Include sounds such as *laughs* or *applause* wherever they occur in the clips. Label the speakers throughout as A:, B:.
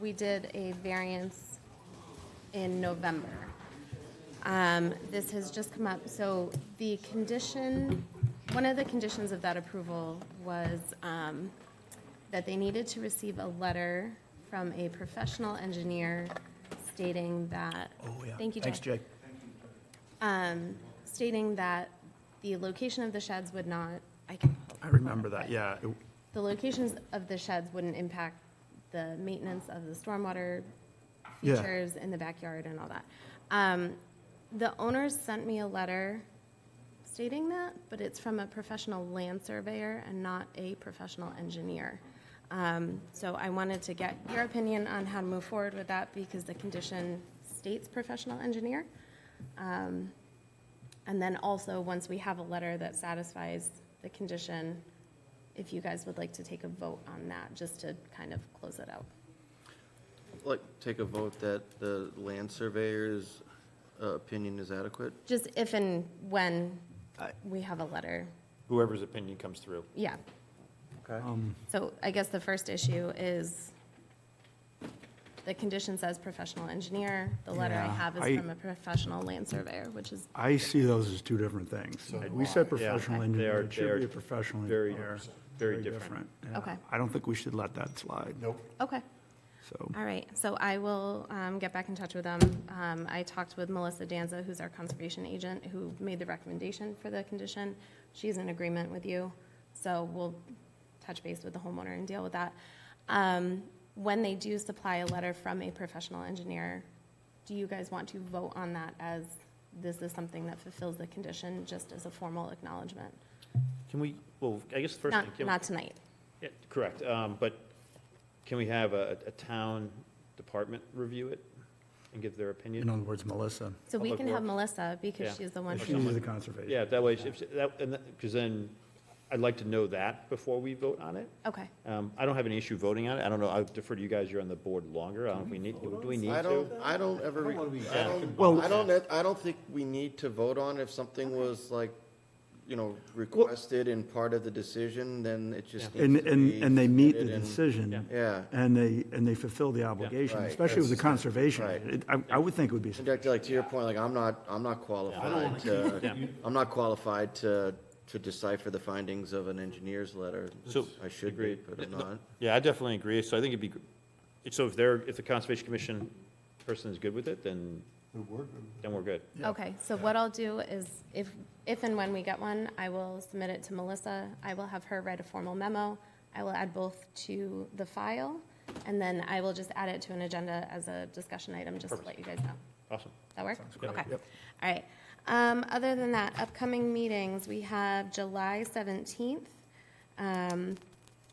A: we did a variance in November. Um, This has just come up, so the condition, one of the conditions of that approval was um, that they needed to receive a letter from a professional engineer stating that.
B: Oh, yeah.
A: Thank you,
B: Thanks,
A: Jack
B: Jake.
A: um, stating that the location of the sheds would not, I can. pull
B: I
A: it
B: remember
A: up,
B: that,
A: but
B: yeah. It-
A: The locations of the sheds wouldn't impact the maintenance of the stormwater
B: Yeah.
A: features in the backyard and all that. Um, The owners sent me a letter stating that, but it's from a professional land surveyor and not a professional engineer. Um, So I wanted to get your opinion on how to move forward with that because the condition states professional engineer. Um, And then also, once we have a letter that satisfies the condition, if you guys would like to take a vote on that, just to kind of close it out.
C: Like, take a vote that the land surveyor's uh, opinion is adequate?
A: Just if and when we have a letter,
D: whoever's opinion comes through.
A: yeah.
C: Okay.
B: Um,
A: So I guess the first issue is, the condition says professional engineer. The letter I
B: Yeah,
A: have
B: I-
A: is from a professional land surveyor, which is,
B: I see those as two different things. We said professional
D: They
B: engineer,
D: are-
B: it
D: they
B: should
D: are
B: be a professional
D: very-
B: engineer.
D: very different.
B: yeah.
A: Okay.
B: I don't think we should let that slide. Nope.
A: okay.
B: So,
A: All right, so I will um, get back in touch with them. Um, I talked with Melissa Danza, who's our conservation agent, who made the recommendation for the condition. She's in agreement with you, so we'll touch base with the homeowner and deal with that. Um, When they do supply a letter from a professional engineer, do you guys want to vote on that as this is something that fulfills the condition, just as a formal acknowledgement?
D: Can we, well, I guess the first
A: Not,
D: thing, can,
A: not tonight.
D: yeah, correct, um, but can we have a, a town department review it and give their
B: in
D: opinion?
B: other words, Melissa,
A: So we can
D: Public
A: have
D: Works.
A: Melissa,
D: Yeah.
A: because she's the one
D: Or
A: who,
B: she needs
D: someone-
B: the conservation.
D: Yeah, that way, if, that, and that, because then, I'd like to know that before we vote on it.
A: okay.
D: Um, I don't have any issue voting on it, I don't know, I defer to you guys, you're on the board longer, I don't know if we need, do we need to?
C: I don't, I don't ever, re- I
B: Well-
C: don't, I don't, I don't think we need to vote on if something was like, you know, requested and part of the decision, then it just
B: And,
C: needs to
B: and,
C: be
B: and they meet the
C: submitted and-
B: decision.
C: Yeah.
B: And they, and they fulfill the obligation,
C: Right.
B: especially with the conservation.
C: Right.
B: It- I, I would think it would be,
C: And Jack, like, to your point, like, I'm not, I'm not qualified to, I'm not qualified to, to decipher the findings of an engineer's letter.
D: So-
C: I should be,
D: Agreed.
C: but I'm not.
D: Yeah, I definitely agree, so I think it'd be, gr- so if they're, if the Conservation Commission person is good with it, then, then we're good.
A: Okay, so what I'll do is, if, if and when we get one, I will submit it to Melissa. I will have her write a formal memo. I will add both to the file, and then I will just add it to an agenda as a discussion item, just to let you guys know.
D: Awesome.
A: That work?
D: great.
A: Okay, all right. Um, Other than that, upcoming meetings, we have July 17th. Um,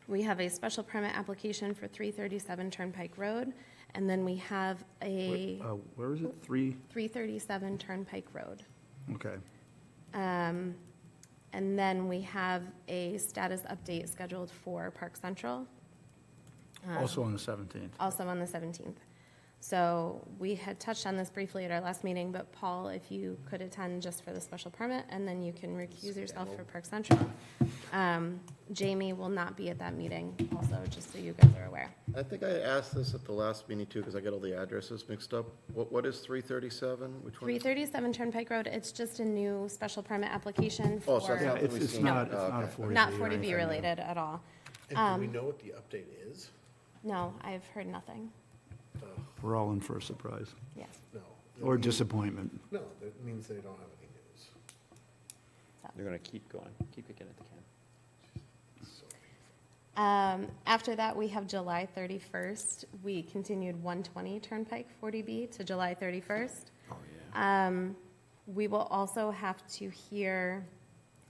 A: We have a special permit application for 337 Turnpike Road, and then we have a
B: uh, where is it? Three?
A: 337 Turnpike Road.
B: Okay.
A: Um, And then we have a status update scheduled for Park Central, Uh-huh.
B: Also on the 17th.
A: also on the 17th. So we had touched on this briefly at our last meeting, but Paul, if you could attend just for the special permit, and then you can recuse yourself for Park Central. Um, Jamie will not be at that meeting also, just so you guys are aware.
C: I think I asked this at the last meeting too, because I got all the addresses mixed up. What, what is three thirty-seven? Which one? is-
A: 337 Turnpike Road, it's just a new special permit application
C: Oh, so
A: for,
C: Yeah,
B: Yeah,
C: it's-
B: it's,
C: we've
B: it's
C: seen
B: not,
C: it.
B: it's
C: Oh,
B: not a
C: okay.
B: 40B.
A: not
B: or
A: 40B
B: anything.
A: related at all.
E: And do we know what the update is?
A: No, I've heard nothing,
B: We're all in for a surprise
A: yes,
E: No.
B: or disappointment.
E: No, that means they don't have any news.
D: They're gonna keep going, keep kicking at the can.
A: Um, after that, we have July 31st. We continued 120 Turnpike 40B to July 31st. Oh, yeah. Um, we will also have to hear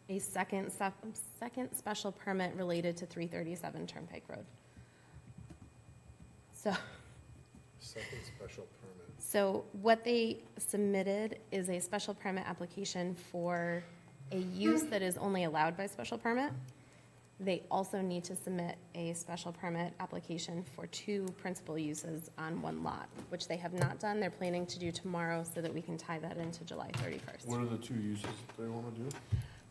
A: a second, sep- second special permit related to 337 Turnpike Road. So, *laughs*
E: Second special permit.
A: so what they submitted is a special permit application for a use that is only allowed by special permit. They also need to submit a special permit application for two principal uses on one lot, which they have not done. They're planning to do tomorrow so that we can tie that into July
F: What
A: 31st.
F: are the two uses they want to do?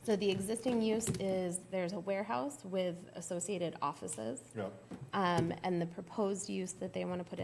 A: So the existing use is, there's a warehouse with associated offices.
F: Yeah.
A: um, And the proposed use that they want to put